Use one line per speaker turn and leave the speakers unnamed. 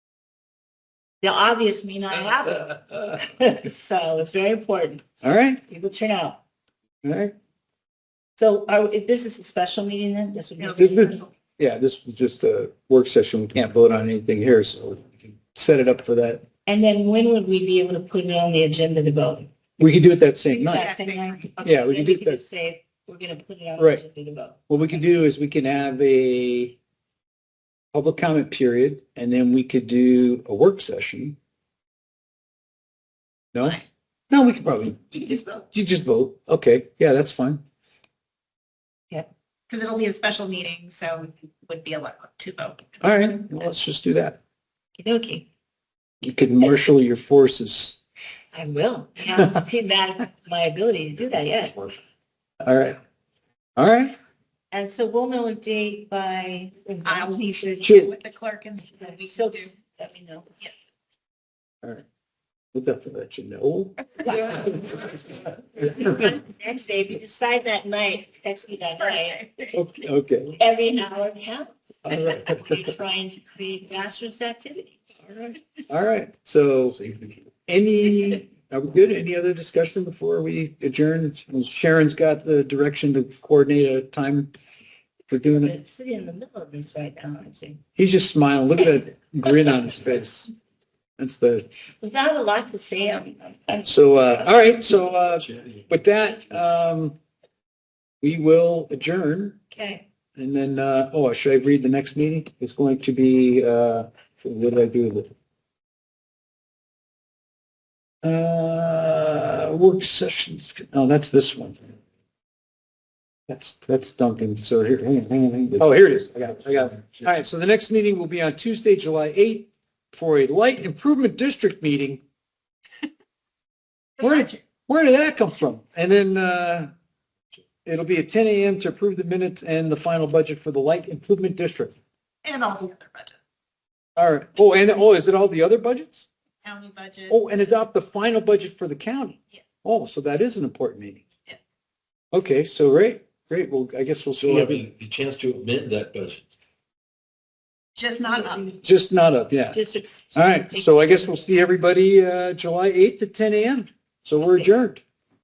the obvious may not happen. So it's very important.
All right,
People turn out.
all right.
So are, if this is a special meeting then, this would be. a
This
special
is-
meeting?
Yeah, this was just a work session. We can't vote on anything here, so we can set it up for that.
And then when would we be able to put it on the agenda to vote?
We could do it that same night.
That same night?
Yeah, we
Okay, then
can
we
do
could
that.
just say, we're going to put it on
Right.
the agenda to vote.
What we could do is we can have a public comment period, and then we could do a work session. No? No, we could probably,
You could just vote,
you just vote. Okay, yeah, that's fine.
because it'll be a special meeting, so it would be allowed to vote.
All right, well, let's just do that.
Okay,
You can marshal your forces.
I will. I haven't seen that, my ability to do that yet.
All right. All right.
And so we'll know a date by.
I'll
need to
Sure.
with the clerk and we
So
can do.
let me know.
We'll definitely let you know.
Next day, if you decide that night, text me that night.
Okay.
Every hour counts.
All right.
We're trying to create grassroots activity.
All right. So any, are we good? Any other discussion before we adjourn? Sharon's got the direction to coordinate a time for doing it.
But sitting in the middle of this right now, I'm saying,
He's just smiling. Look at that grin on his face. That's the,
without a lot to say, I'm, I'm
so, uh, all right. So, uh, with that, um, we will adjourn.
okay.
And then, uh, oh, should I read the next meeting? It's going to be, uh, what did I do with it? Uh, work sessions, no, that's this one. That's, that's Duncan, so here, hang on, hang on, hang on. Oh, here it is, I got it, I got it. All right, so the next meeting will be on Tuesday, July 8th for a light improvement district meeting. Where did, where did that come from? And then, uh, It'll be at 10 a.m. to approve the minutes and the final budget for the Light Improvement District.
And all the other budget,
All right. Oh, and, oh, is it all the other budgets?
county budget.
Oh, and adopt the final budget for the county?
Yeah.
Oh, so that is an important meeting?
Yeah.
Okay, so great, great. Well, I guess we'll
So
see.
have
every-
the chance to amend that budget.
Just not up.
Just not up, yeah.
Just a
All right, so I guess we'll see everybody, uh, July 8th at 10 a.m. So we're adjourned.